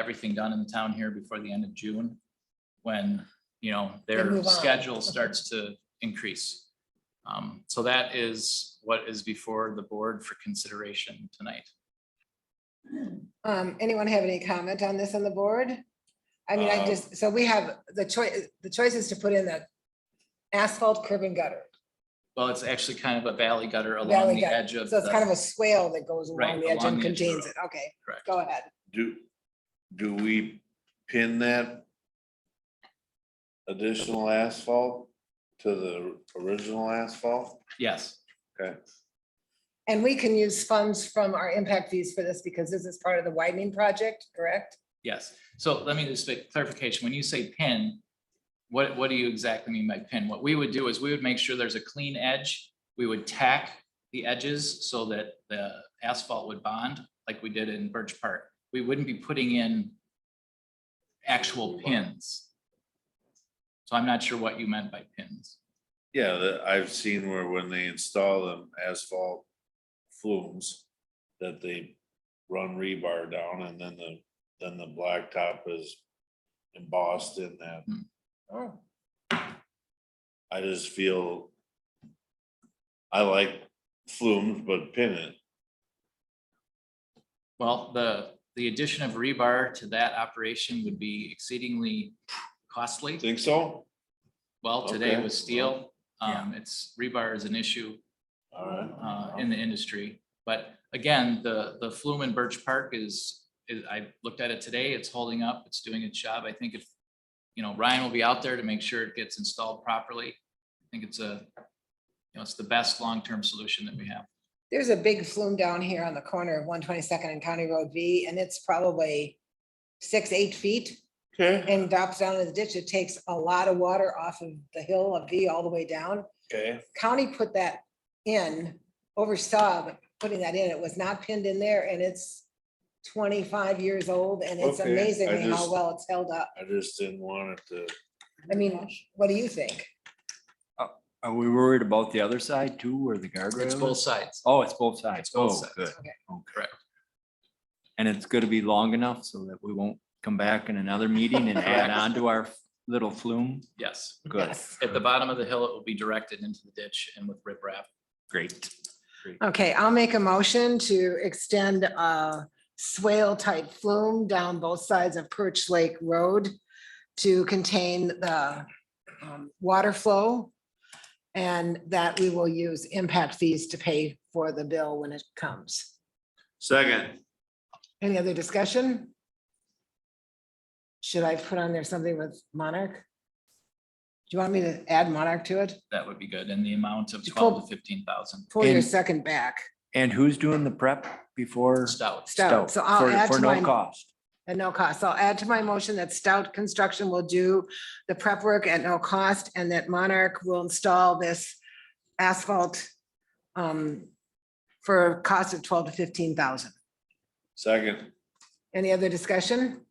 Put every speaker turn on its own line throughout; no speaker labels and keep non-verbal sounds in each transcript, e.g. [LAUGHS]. everything done in the town here before the end of June, when, you know,
Then
their
move on.
schedule starts to increase. Um, so that is what is before the board for consideration tonight.
Um, anyone have any comment on this on the board? I mean, I
Um,
Uh,
just, so we have the choice, the choice is to put in the asphalt curb and gutter.
Well, it's actually kind of a valley gutter along
Valley
the
gutter.
edge of
So it's kind of
the,
a swale that goes
Right,
along the edge
along
and
the edge of the
contains
road.
it. Okay,
Correct.
go ahead.
Do, do we pin that additional asphalt to the original asphalt?
yes,
And we can use funds from our impact fees for this because this is part of the widening project, correct?
yes. So let me just make clarification. When you say pin, what, what do you exactly mean by pin? What we would do is we would make sure there's a clean edge. We would tack the edges so that the asphalt would bond like we did in Birch Park. We wouldn't be putting in actual pins. So I'm not sure what you meant by pins.
Yeah, that I've seen where when they install them asphalt flumes, that they run rebar down and then the, then the blacktop is embossed in that.
Oh,
I just feel I like flumes, but pin it.
Well, the, the addition of rebar to that operation would be exceedingly costly.
Think so?
Well, today
Okay.
with steel, um, it's rebar is an issue,
All right.
uh, in the industry. But again, the, the flume in Birch Park is, is, I looked at it today, it's holding up, it's doing its job. I think if, you know, Ryan will be out there to make sure it gets installed properly. I think it's a, you know, it's the best long-term solution that we have.
There's a big flume down here on the corner of one twenty-second and County Road V, and it's probably six, eight feet
Okay.
and drops down in the ditch. It takes a lot of water off of the hill of V all the way down.
Okay,
county put that in, oversaw the- putting that in, it was not pinned in there, and it's twenty-five years old, and it's
Okay, I
amazingly how
just-
well it's held up.
I just didn't want it to.
I mean, what do you think?
Are we worried about the other side too, where the
It's
guardrail
both
is?
sides.
Oh, it's both sides.
both
Oh,
sides.
good.
Okay.
Correct.
And it's gonna be long enough so that we won't come back in another
[LAUGHS]
meeting and add
Correct.
on to our little flume.
Yes.
Good,
At the bottom of the hill, it will be directed into the ditch and with riprap.
great.
Okay, I'll make a motion to extend a swale-type flume down both sides of Perch Lake Road to contain the um, water flow, and that we will use impact fees to pay for the bill when it comes.
Second.
Any other discussion? Should I put on there something with Monarch? Do you want me to add Monarch to it?
That would be good. And the amount of
You
twelve
pulled-
to fifteen thousand.
Pull your
And-
second back,
And who's doing the prep before?
Stout.
Stout. So I'll
For-
add
For
to
no
my,
cost.
at no cost. So I'll add to my motion that Stout Construction will do the prep work at no cost and that Monarch will install this asphalt um, for a cost of twelve to fifteen thousand.
Second.
Any other discussion?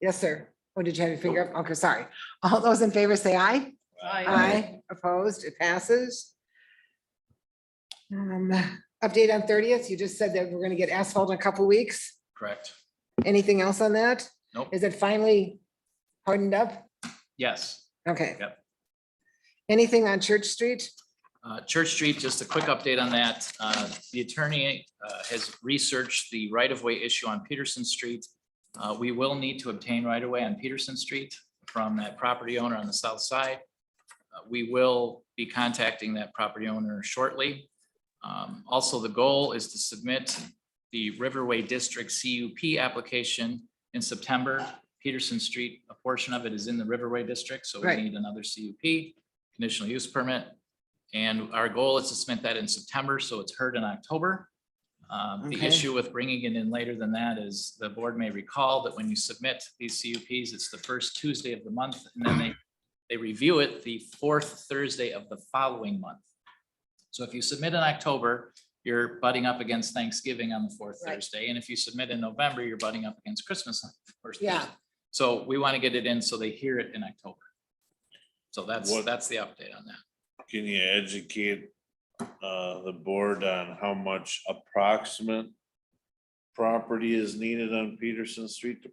Yes, sir. Oh, did you have your finger up? Okay, sorry. All those in favor say aye. Aye, opposed, it passes. Um, Update on thirtieth, you just said that we're gonna get asphalt in a couple weeks.
Correct.
Anything else on that?
Nope.
Is it finally hardened up?
Yes.
Okay.
Yep.
Anything on Church Street?
Uh, Church Street, just a quick update on that. Uh, The attorney uh, has researched the right-of-way issue on Peterson Street. Uh, We will need to obtain right-of-way on Peterson Street from that property owner on the south side. Uh, We will be contacting that property owner shortly. Um, Also, the goal is to submit the Riverway District CUP application in September. Peterson Street, a portion of it is in the Riverway District, so we
Right.
need another CUP, conditional use permit. And our goal is to submit that in September, so it's heard in October. Um, The
Okay.
issue with bringing it in later than that is the board may recall that when you submit these CUPs, it's the first Tuesday of the month. And then they, they review it the fourth Thursday of the following month. So if you submit in October, you're butting up against Thanksgiving on the fourth
Right.
Thursday. And if you submit in November, you're butting up against Christmas. on the first
Yeah.
Thursday. So we want to get it in so they hear it in October. So that's,
What-
that's the update on that.
Can you educate uh the board on how much approximate property is needed on Peterson Street to